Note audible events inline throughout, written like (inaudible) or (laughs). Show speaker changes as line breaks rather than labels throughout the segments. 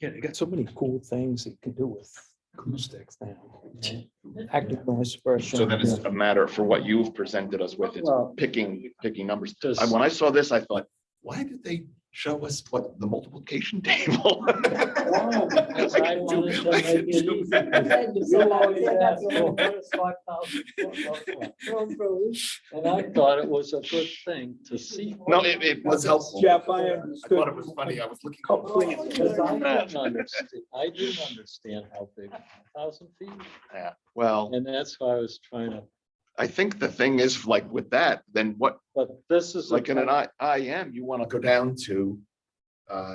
Yeah, they got so many cool things that you can do with acoustics now. you know, Active noise suppression.
So then it's a matter for what you've presented us with, it's
Well-
picking, picking numbers.
Does-
And when I saw this, I thought, why did they show us what the multiplication (laughs) table?
Wow, because
(laughs) I
I
can
wanted
do-
to
I can
make it
do
easy.
that.
You always ask for
Roll
first $5,000.
through.
And I thought it was a good thing to see.
No, it, it was helpful. I
Jeff, I understood.
thought it was funny. I was looking.
Because I didn't understand, I didn't understand how big, a thousand feet,
Yeah, Well,
and that's why I was trying to,
I think the thing is like with that, then what,
but this is. a
like in an
kind-
I, I am, you want to go down to uh,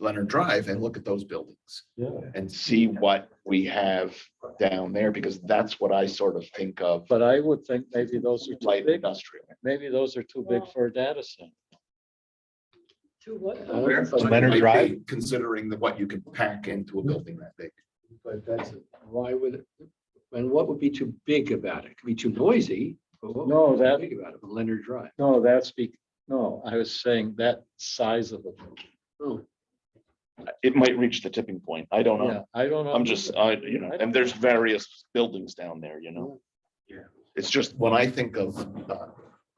Leonard Drive and look at those buildings
Yeah,
and see what we have down there, because that's what I sort of think of.
but I would think maybe those are
light
too big,
industrial.
maybe those are too big for a data center.
To what?
Uh, Where?
So it
Leonard
might be
Drive?
Considering that what you can pack into a building that big.
But that's, why would, it- and what would be too big about it? It Could be too noisy. but what would
No,
be too
that-
Big about it, Leonard Drive.
No, that's be, no, I was saying that size of it.
It might reach the tipping point. I don't
Yeah,
know.
I don't know.
I'm just, I, you know, and there's various buildings down there, you know?
Yeah.
It's just when I think of uh,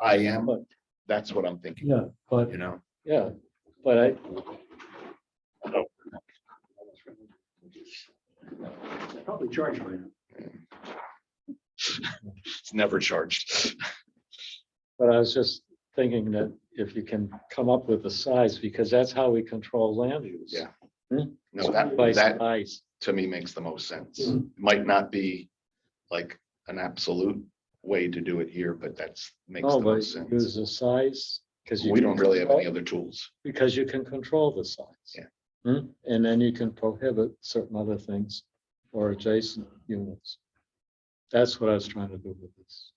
I am, that's what I'm thinking,
Yeah, but,
you know?
yeah, but I,
Oh.
Probably charge right now.
It's never charged.
But I was just thinking that if you can come up with the size, because that's how we control land use.
Yeah. No, that,
By
that
size.
to me makes the most sense.
Hmm.
Might not be like an absolute way to do it here, but that's makes
No,
the
but
most sense.
use the size, because you.
We
can
don't really have any
control-
other tools.
Because you can control the size.
Yeah.
Hmm? And then you can prohibit certain other things or adjacent units. That's what I was trying to do with this.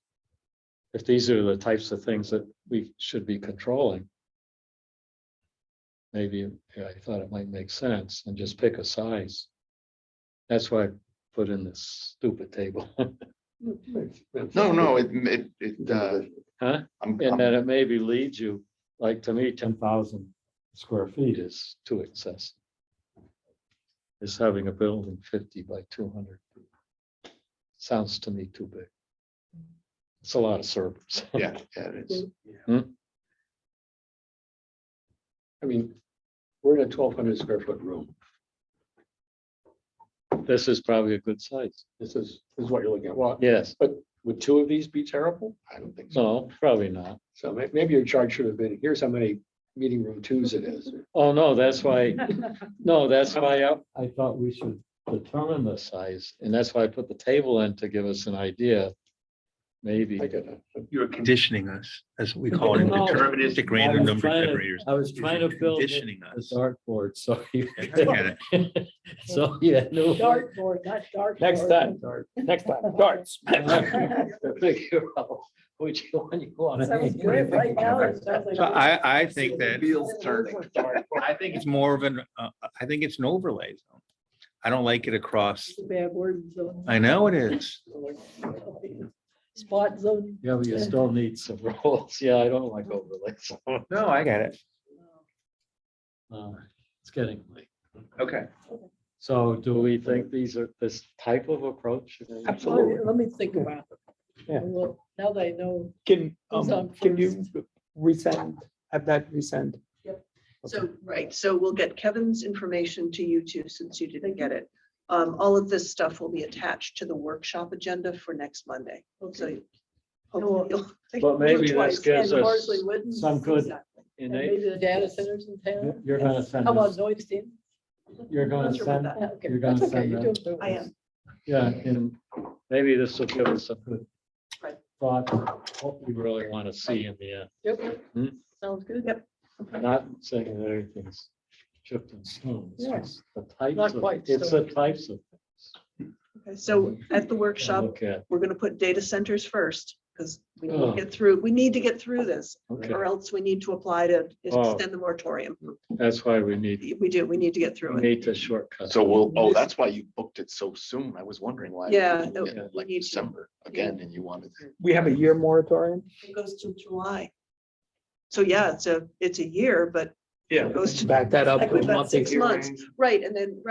If these are the types of things that we should be controlling. Maybe yeah, I thought it might make sense and just pick a size. That's why I put in this stupid table, (laughs)
No, no, it, it, it, uh,
huh?
I'm,
And
I'm-
then it maybe leads you, like to me, ten thousand square feet is too excessive. Is having a building fifty by two hundred. Sounds to me too big. It's a lot of (laughs) servers.
yeah, yeah, it is.
I mean, we're in a twelve hundred square foot room.
This is probably a good size.
This is, this is what you're looking at. Well,
Yes,
would two of these be terrible?
I don't think so.
no, probably not.
So may- maybe your charge should have been, here's how many meeting room twos it is.
Oh, no, that's why, (laughs) no, that's why I, I thought we should determine the size. And that's why I put the table in to give us an idea. Maybe.
I get it.
You're conditioning us, as we call it,
No.
deterministic random number
trying to-
generators.
I was
You're
trying to build the
Conditioning
the
us.
dartboard, so you.
I get (laughs) it.
(laughs)
So, yeah, no.
Dartboard, not dark.
Next time, next time,
(laughs)
darts.
Figure out Which one you want.
Sounds great. Right now, it sounds like.
So I, I think that,
Wheels turning.
I think it's more of an, uh, I think it's an overlay zone. I don't like it across.
It's a Bad word. zone.
I know it is.
Spot zone.
Yeah, but you still need some roles. Yeah, I don't like (laughs) overlays.
No, I get it.
Uh, It's getting late.
Okay.
So do we think these are this type of approach?
Absolutely. Let me think about it.
Yeah.
Well, now that I know.
Can,
Who's on
um, can you
first?
resend, have that resend?
So, right, so we'll get Kevin's information to you too, since you didn't get it. Um, all of this stuff will be attached to the workshop agenda for next Monday, so. you- hopefully you'll-
But maybe this
Twice,
gives
and
us
Horsley Wooden,
some good-
exactly.
And
innate.
Maybe the data centers in town.
You're gonna send
uh, How about
us,
noise team?
you're gonna
Not sure about
send,
that.
Okay,
You're gonna
that's okay. (laughs)
send
You're
that.
doing good.
I am.
yeah, and maybe this will give us a good
Right.
thought, of what we really want to see in the end.
Yep.
Hmm?
Sounds good.
Yep.
Not saying that everything's chipped in stone. It's
Yeah.
just The types
Not
of,
quite,
it's
so-
the types of.
Okay, So at the workshop,
Okay,
we're gonna put data centers first, because we need
Oh.
to get through, we need to get through this,
okay.
or else we need to apply to
Oh.
extend the moratorium.
That's why we need
We do, we need to get through
We
it.
need to shortcut.
So we'll, oh, that's why you booked it so soon. I was wondering why.
Yeah,
you did
no,
it Like
we need to.
December again, and you wanted. to-
We have a year moratorium?
It goes till July. So yeah, it's a, it's a year, but
Yeah.
Goes to-
Back that up.
like
to a
we've
month
got six
hearing.
months, right, and then,